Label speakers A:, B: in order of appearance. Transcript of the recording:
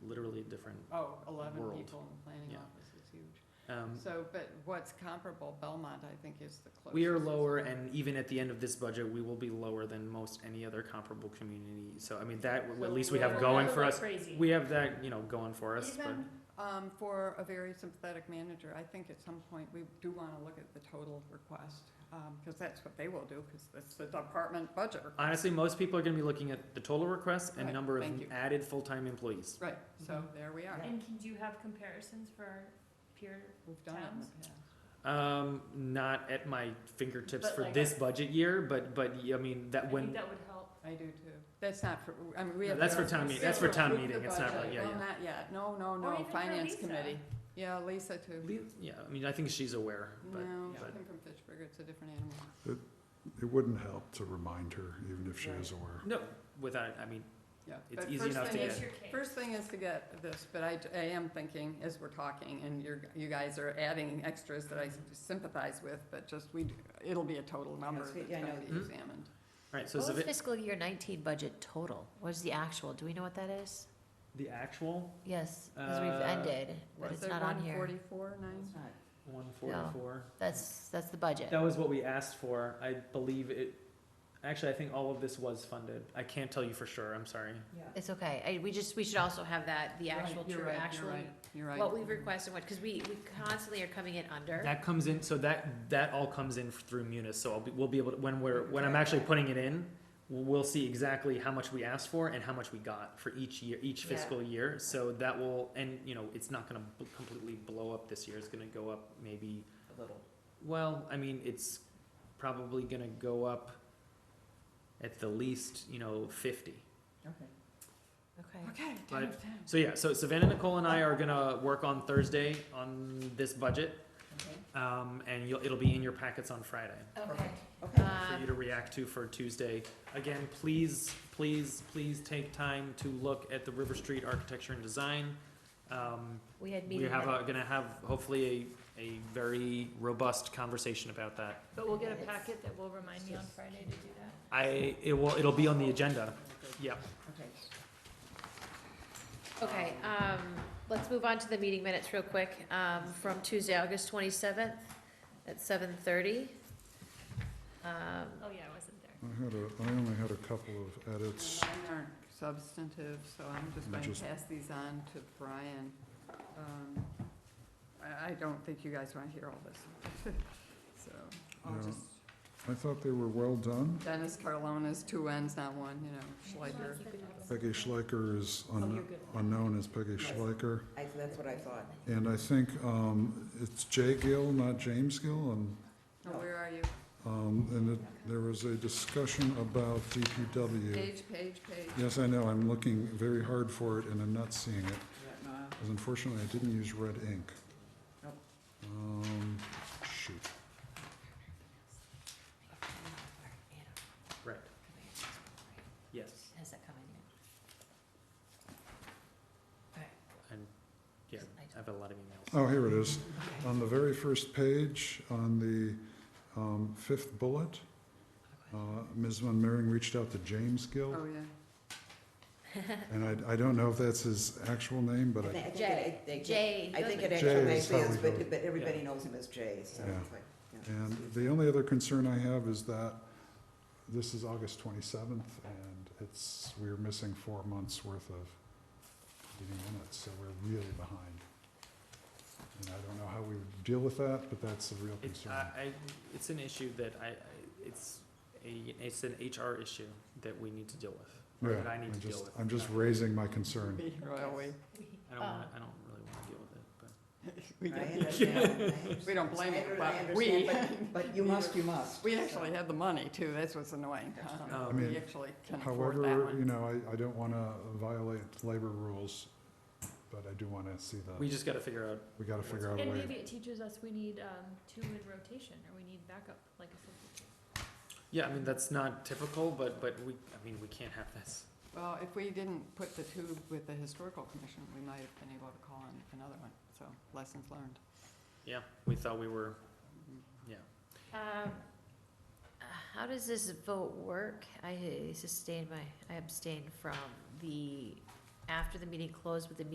A: different,
B: Oh, eleven
A: World.
B: people in the planning
A: Yeah.
B: office is huge.
A: um,
B: So, but what's comparable, Belmont, I think, is the closest.
A: we are lower and even at the end of this budget, we will be lower than most any other comparable community. So, I mean, that,
C: So
A: at least we have
C: we're
A: going
C: not
A: for us.
C: Crazy.
A: We have that, you know, going for us, but.
B: Even, um, for a very sympathetic manager, I think at some point, we do wanna look at the total request, um, cause that's what they will do, cause it's the department budget request.
A: Honestly, most people are gonna be looking at the total requests and
B: Right,
A: number of
B: thank you.
A: added full-time employees.
B: Right, so
C: Mhm.
B: there we are,
C: And can you have comparisons for our peer?
B: we've done it in the past.
A: Um, not at my fingertips
C: But
A: for
C: like-
A: this budget year, but, but, I mean,
C: I
A: that
C: think
A: when,
C: that would help.
B: I do too. That's not for, I mean, we
A: No,
B: have.
A: that's
B: to-
A: for town
C: meeting- that's for
B: we
A: town
B: approve the
A: meeting, it's not
B: budget.
A: right, yeah,
B: Well,
A: yeah.
B: not yet, no, no,
C: Or
B: no,
C: even for
B: finance
C: Lisa.
B: committee. Yeah, Lisa too.
A: Le- yeah, I mean, I think she's aware, but,
B: No, she
A: but-
B: came from Fitchburg, it's a different animal.
D: It wouldn't help to remind her, even if she is aware.
A: no, without, I mean,
B: Yeah.
A: It's
B: but
A: easy
B: first
A: enough to
B: thing
A: get.
C: Makes
B: is-
C: your case.
B: First thing is to get this, but I, I am thinking as we're talking and you're, you guys are adding extras that I sympathize with, but just we, it'll be a total number
E: Yes,
B: that's
E: we- I
B: gonna
E: know.
B: be
A: Mhm.
B: examined.
A: alright, so
F: What
A: is
F: was
A: it,
F: fiscal year nineteen budget total? What is the actual? Do we know what that is?
A: the actual
F: Yes, because we've
A: Uh,
F: ended, but
B: Was
F: it's
B: it
F: not on here.
B: 144, nine?
E: It's not.
A: one forty-four?
F: That's, that's the budget.
A: That was what we asked for, I believe it, actually, I think all of this was funded, I can't tell you for sure, I'm sorry.
F: It's okay. I, we just, we should also have that, the
B: Right,
F: actual,
B: you're
F: true,
B: right, you're
F: actual,
B: right, You're right.
F: what we've requested, what, because we, we constantly are coming in under.
A: That comes in, so that, that all comes in through Munis, so I'll be, we'll be able to, when we're, when I'm actually putting it in, we'll see exactly how much we asked for and how much we got for each year, each
F: Yeah.
A: fiscal year, so that will, and, you know, it's not gonna b- completely blow up this year, it's gonna go up maybe,
E: A little.
A: well, I mean, it's probably gonna go up at the least, you know, fifty.
E: Okay.
F: Okay.
B: Okay,
A: Right.
B: ten of ten.
A: So yeah, so Savannah, Nicole and I are gonna work on Thursday on this budget,
E: Okay.
A: um, and you'll, it'll be in your packets on Friday.
F: Okay.
E: Okay.
A: for you
F: Um,
A: to react to for Tuesday. Again, please, please, please take time to look at the River Street Architecture and Design. Um,
F: we had
A: we
F: meeting,
A: have,
F: minutes.
A: a- gonna have hopefully a, a very robust conversation about that.
C: But we'll get a
F: It's-
C: packet that will remind me on Friday to do that.
A: I, it will, it'll be on the agenda,
E: Okay.
A: yep.
E: Okay.
F: okay, um, let's move on to the meeting minutes real quick, um, from Tuesday, August twenty-seventh at seven thirty. Um,
C: Oh, yeah, I wasn't there.
D: I had a, I only had a couple of edits.
B: Mine aren't substantive, so I'm just
D: I'm
B: going to
D: just-
B: pass these on to Brian. Um, I, I don't think you guys want to hear all this. So I'll
D: Yeah.
B: just,
D: I thought they were well done.
B: Dennis Carlona's two ends, not one, you know, Schleicher.
D: Peggy Schleicher is un- unknown as Peggy
E: Yes.
D: Schleicher.
E: I, that's what I thought.
D: And I think um, it's Jay Gill, not James Gill. And,
B: Now, Where are you?
D: um, and it- there was a discussion about DPW.
B: Page, page, page.
D: Yes, I know, I'm looking very hard for it and I'm not seeing it. Because unfortunately, I didn't use red ink.
E: Nope.
D: Um, shoot.
A: Right. Yes.
F: Has that come in yet?
A: And, yeah, I have a lot of emails.
D: Oh, here it is. On the very first page, on the um, fifth bullet, uh, Ms. Van Meering reached out to James Gill,
B: Oh, yeah.
D: and I, I don't know if that's his actual name, but
E: I
D: I,
E: think- I think
F: Jay.
E: it- it-
F: Jay.
E: I think it
F: Goodman.
D: Jay
E: actually makes
D: is how
E: sense,
D: we do
E: but,
D: it.
E: but everybody
A: Yeah.
E: knows him as Jay, so.
D: Yeah.
E: it's like, yeah.
D: and the only other concern I have is that this is August twenty-seventh, and it's, we're missing four months' worth of meeting minutes, so we're really behind. And I don't know how we would deal with that, but that's a real
A: It's,
D: concern.
A: I, I, it's an issue that I, I- it's a, it's an HR issue that we need to deal with, or
D: Yeah,
A: that I need
D: I'm
A: to deal
D: just-
A: with.
D: I'm just raising my concern.
B: Be Royally.
A: I don't wanna, I don't really wanna deal with it, but.
B: We
E: I
B: get-
E: understand.
B: We don't blame
E: I
B: you,
E: under- I
B: but we,
E: understand, but, but you must, you must.
B: we
E: so.
B: actually had the money too, that's what's annoying. huh?
A: Oh. I
D: mean,
B: We actually can afford that
D: However, you
B: one.
D: know, I, I don't want to violate labor rules, but I do want to see
A: We
D: the,
A: just gotta figure out
D: we got to figure out a
C: And
D: way.
C: maybe it teaches us we need, um, two in rotation, or we need backup, like a substitute.
A: Yeah, I mean, that's not typical, but, but we, I mean, we can't have this.
B: Well, if we didn't put the two with the historical commission, we might have been able to call on another one, so lessons learned.
A: Yeah, we thought we were, yeah.
F: Um, How does this vote work? I sustained my, I abstained from the, after the meeting closed with the